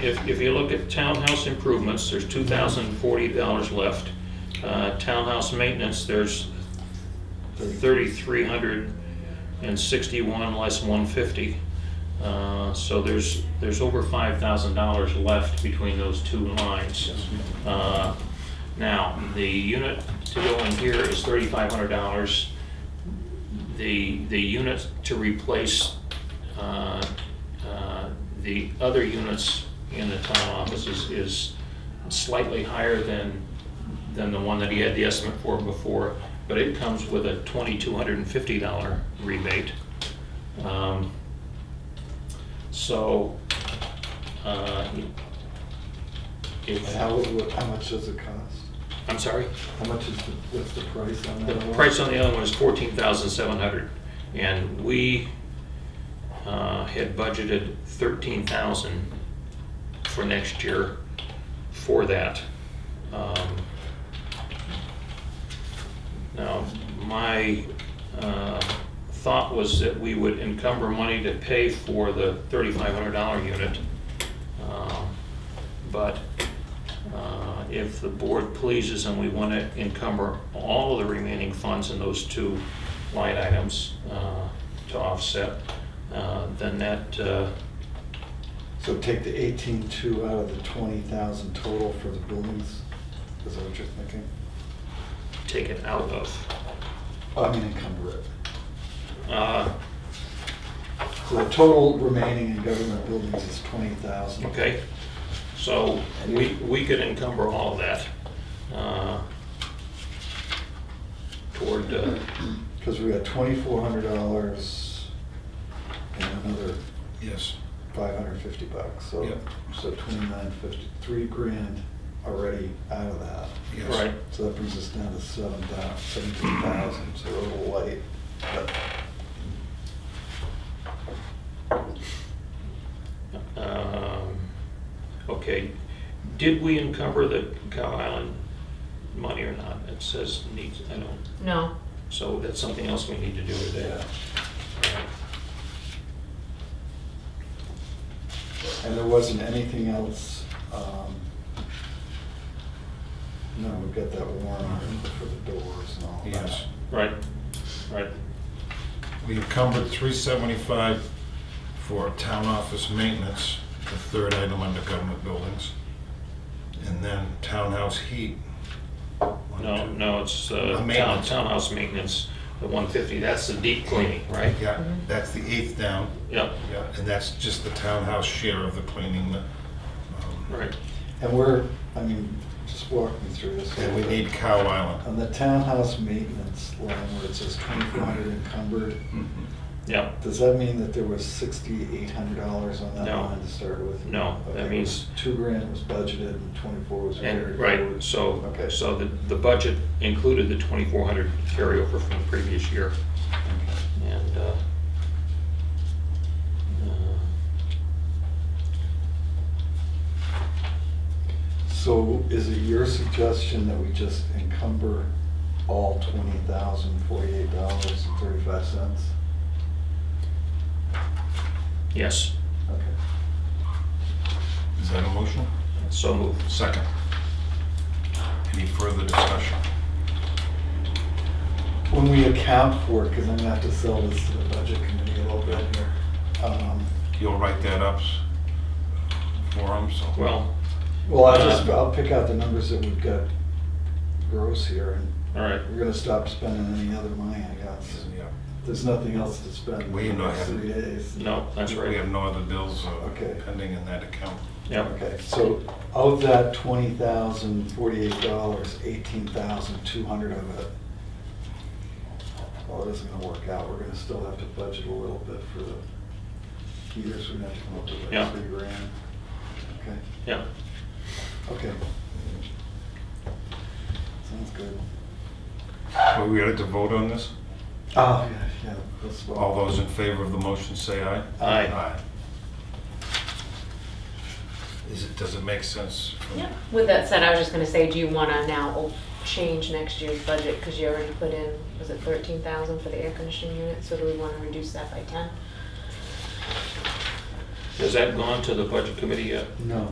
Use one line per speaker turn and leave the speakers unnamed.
If, if you look at townhouse improvements, there's two thousand forty dollars left. Uh, Townhouse maintenance, there's thirty-three hundred and sixty-one less one fifty. Uh, So there's, there's over five thousand dollars left between those two lines. Uh, Now, the unit to go in here is thirty-five hundred dollars. The, the unit to replace uh, uh, the other units in the town offices is slightly higher than, than the one that he had the estimate for before, but it comes with a $2,250 rebate. Um, So, uh, if,
How, what- how much does it cost?
I'm sorry,
How much is, the what's the price on
the
that? one?
price on the other one is 14,700, and we uh, had budgeted 13,000 for next year for that. Um, Now, my uh, thought was that we would encumber money to pay for the $3,500 unit. Um, But uh, if the board pleases and we want to encumber all of the remaining funds in those two line items uh, to offset, uh, then that, uh,
So take the eighteen-two out of the twenty thousand total for the buildings, is that what you're thinking?
take it out of.
I mean, encumber it.
Uh,
So the total remaining in government buildings is twenty thousand.
Okay, so we, we could encumber all of that uh, toward, uh,
Cause we got twenty-four hundred dollars and another
Yes,
five hundred fifty bucks, so,
Yep.
so twenty-nine fifty, three grand already out of that.
yes.
right,
So that brings us down to seven thou- 17,000, so we're a little light. but-
Um, Okay, did we encumber the Cow Island money or not? It says needs, I don't,
No,
so that's something else we need to do with that.
And there wasn't anything else, um, no, we've got that warrant article for the doors and all that.
Yes.
Right, right,
We encumbered three seventy-five for town office maintenance, the third item under government buildings. And then townhouse heat. One,
no,
two-
no, it's uh,
Uh,
town-
maintenance.
townhouse maintenance, the 150, that's the deep cleaning, right?
Yeah, that's the eighth down,
Yep,
yeah, and that's just the townhouse share of the cleaning. um,
right,
And we're, I mean, just walk me through this. a
And we
little bit.
need Cow Island.
On the townhouse maintenance line where it says 2,400 encumbered,
Mhm.
yep.
does that mean that there was $6,800 on that
No.
line to start with?
No, that
Okay, it
means-
was Two grand was budgeted and 24 was carried
And, right,
forward.
so,
Okay.
so the, the budget included the 2,400 carryover from the previous year. And, uh, uh,
So is it your suggestion that we just encumber all twenty thousand forty-eight dollars and thirty-five cents?
yes,
Okay.
Is that a motion?
so moved.
Second. Any further discussion?
When we account for it, because I'm gonna have to sell this to the budget committee a little bit here. um,
You'll write that up s- for them, so.
Well,
Well, I just,
Uh,
I'll pick out the numbers that we've got gross here, and
all right,
we're gonna stop spending any other money, I guess.
Yeah.
There's nothing else to spend.
We
in the
know
next
haven't-
Three days.
no, that's
We have
right,
no other bills uh,
Okay.
pending in that account.
yeah,
Okay, so of that twenty thousand forty-eight dollars, eighteen thousand two hundred of it, well, it isn't gonna work out, we're gonna still have to budget a little bit for the heaters, we're gonna have to come up with
Yeah.
like three grand. Okay,
yeah.
okay. Sounds good.
But we had to vote on this?
Oh, yeah, yeah, that's what.
Uh, All those in favor of the motion say aye.
Aye.
Is it, does it make sense? from-
yeah. With that said, I was just gonna say, do you wanna now o- change next year's budget, cause you already put in, was it thirteen thousand for the air conditioning unit, so do we wanna reduce that by ten?
Has that gone to the budget committee yet?
No.